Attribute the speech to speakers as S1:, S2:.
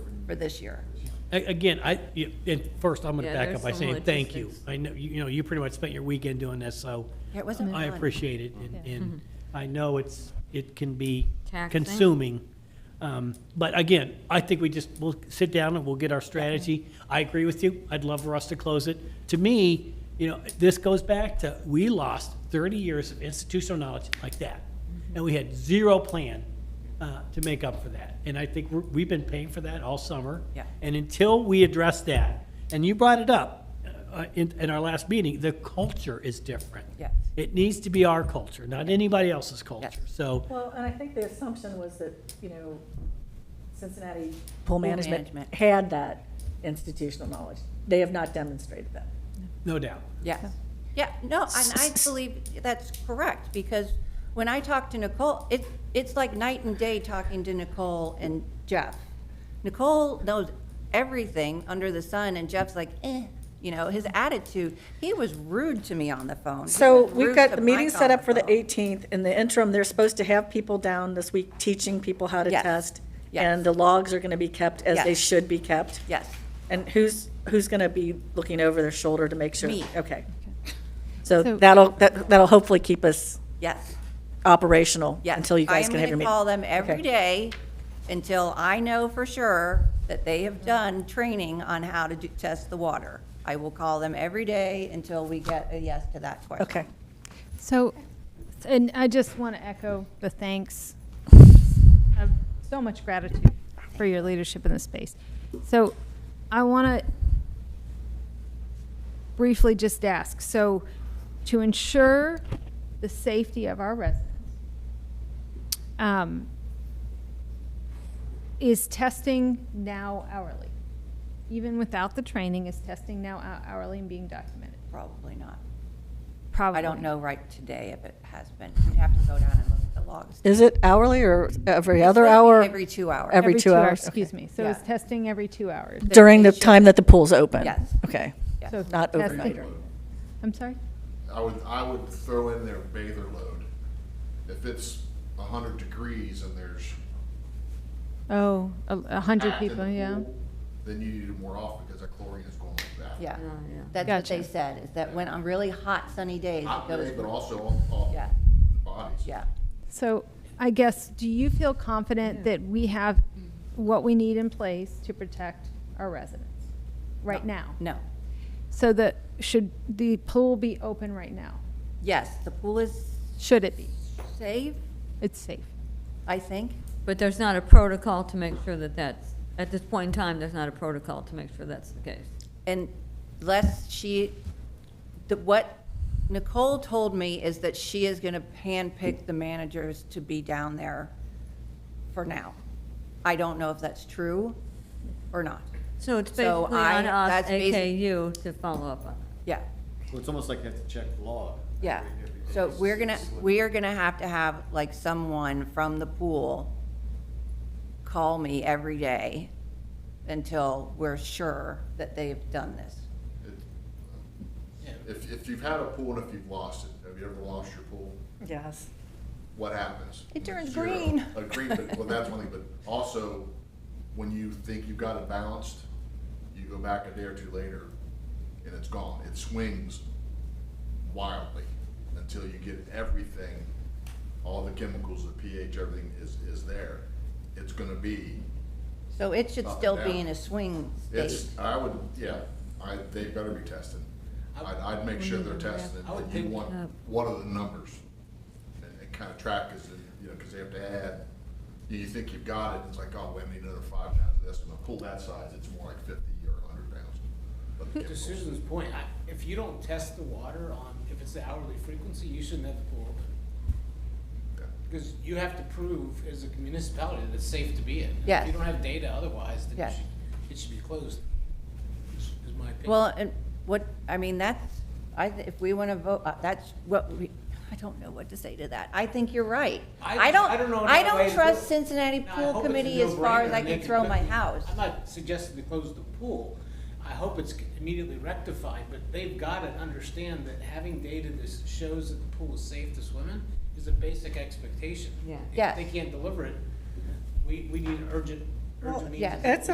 S1: for this year.
S2: A- Again, I, you- and first, I'm going to
S3: Yeah,
S2: back
S3: there's
S2: up by
S3: some
S2: saying thank you.
S3: logistics.
S2: I know, you you know, you pretty much spent your weekend doing this, so
S1: Yeah, it wasn't
S2: I
S1: fun.
S2: appreciate it. and- And I know it's, it can be
S3: Taxing.
S2: consuming. Um, But again, I think we just, we'll sit down and we'll get our strategy. I agree with you. I'd love for us to close it. To me, you know, this goes back to, we lost 30 years of institutional knowledge like that. And we had zero plan uh, to make up for that. And I think we're- we've been paying for that all summer.
S1: Yeah.
S2: And until we address that, and you brought it up uh, in, in our last meeting, the culture is different.
S1: Yes.
S2: It needs to be our culture, not anybody else's culture. So,
S4: Well, and I think the assumption was that, you know, Cincinnati
S1: Pool
S4: Pool Management
S1: management.
S4: had that institutional knowledge. They have not demonstrated that.
S2: no doubt.
S1: Yes. Yeah, no, and I believe that's correct, because when I talk to Nicole, it, it's like night and day talking to Nicole and Jeff. Nicole knows everything under the sun, and Jeff's like, eh, you know, his attitude, he was rude to me on the phone. He
S4: So
S1: was
S4: we've
S1: rude
S4: got
S1: to
S4: the meeting
S1: Mike
S4: set
S1: on
S4: up for the
S1: phone.
S4: 18th. In the interim, they're supposed to have people down this week teaching people how to
S1: Yes.
S4: test.
S1: Yes.
S4: And the logs are going to be kept as they
S1: Yes.
S4: should be kept.
S1: Yes,
S4: And who's, who's going to be looking over their shoulder to make sure?
S1: Me.
S4: Okay. So
S5: So-
S4: that'll, that- that'll hopefully keep us
S1: yes,
S4: operational
S1: yes.
S4: until you guys can have your
S1: I am
S4: meeting.
S1: going to call them every
S4: Okay.
S1: day until I know for sure that they have done training on how to do, test the water. I will call them every day until we get a yes to that question.
S4: Okay.
S5: So, and I just want to echo the thanks. of So much gratitude for your leadership in this space. So, I want to briefly just ask, so to ensure the safety of our residents, um, is testing now hourly? Even without the training, is testing now hou- hourly and being documented?
S1: Probably not.
S5: Probably.
S1: I don't know right today if it has been. You'd have to go down and look at the logs.
S4: Is it hourly or every
S1: It's supposed to
S4: other
S1: be
S4: hour?
S1: Every two hours.
S4: every two hours,
S5: Excuse
S4: okay.
S5: me. So is
S1: Yeah.
S5: testing every two hours?
S4: During the time that the pool's open?
S1: Yes.
S4: Okay.
S1: Yes.
S5: So
S4: Not
S5: testing-
S4: overnight.
S5: I'm sorry?
S6: I would, I would throw in their bather load. If it's a hundred degrees and there's.
S5: Oh, a- a hundred
S6: packed in
S5: people,
S6: the
S5: yeah.
S6: pool, Then you need it more often because that chlorine is going like that.
S1: Yeah. That's what they
S5: Gotcha.
S1: said, is that when on really hot sunny days, it
S6: Hot days, but
S1: goes,
S6: also on, on
S1: Yeah.
S6: the bodies.
S1: yeah.
S5: So I guess, do you feel confident that we have what we need in place to protect our residents right now?
S1: No.
S5: So the, should the pool be open right now?
S1: Yes, the pool is
S5: Should it be?
S1: safe,
S5: It's safe.
S1: I think.
S3: But there's not a protocol to make sure that that's, at this point in time, there's not a protocol to make sure that's the case.
S1: And less she, the, what Nicole told me is that she is gonna handpick the managers to be down there for now. I don't know if that's true or not.
S3: So it's
S1: So
S3: basically
S1: I-
S3: on us,
S1: that's basi-
S3: AKU, to follow up on. it.
S1: Yeah.
S7: Well, it's almost like you have to check the log.
S1: Yeah,
S7: Every- every-
S1: so we're gonna,
S7: it's like-
S1: we are gonna have to have, like, someone from the pool call me every day until we're sure that they've done this.
S6: It- If, if you've had a pool and if you've lost it, have you ever lost your pool?
S4: Yes.
S6: what happens?
S1: It turns
S6: Zero.
S1: green.
S6: Uh, green, but, well, that's one thing, but also, when you think you've got it balanced, you go back a day or two later, and it's gone. It swings wildly until you get everything, all the chemicals, the pH, everything is, is there. It's gonna be,
S1: So it should
S6: Up and
S1: still be
S6: down.
S1: in a swing state.
S6: it's, I would, yeah, I, they better be tested. I'd, I'd make sure they're tested,
S7: I would
S6: and you
S7: think-
S6: want, what are the numbers? And, and kind of track is, you know, because they have to add, you, you think you've got it, it's like, oh, we need another five pounds of this, and a pool that size, it's more like fifty or a hundred pounds. of
S8: To
S6: chemicals.
S8: Susan's point, I- if you don't test the water on, if it's the hourly frequency, you shouldn't have the pool open.
S6: Yeah.
S8: Because you have to prove as a municipality that it's safe to be in. If
S1: Yes.
S8: you don't have data otherwise, then
S1: Yes.
S8: you should, it should be closed, is is my opinion.
S1: Well, and what, I mean, that's, I, th- if we wanna vote, uh, that's what we, I don't know what to say to that. I think you're right.
S8: I-
S1: I don't,
S8: I don't know
S1: I
S8: another way
S1: don't
S8: to do
S1: trust
S8: it.
S1: Cincinnati
S8: Now, I
S1: Pool
S8: hope it's a
S1: Committee as far
S8: no-brainer
S1: as I
S8: and
S1: can
S8: they
S1: throw my
S8: quickly-
S1: house.
S8: I'm not suggesting to close the pool. I hope it's immediately rectified, but they've got to understand that having data that shows that the pool is safe to swim in is a basic expectation.
S3: Yeah.
S1: Yes.
S8: If they can't deliver it, we, we need urgent, urgent means.
S1: yes.
S8: of-
S4: That's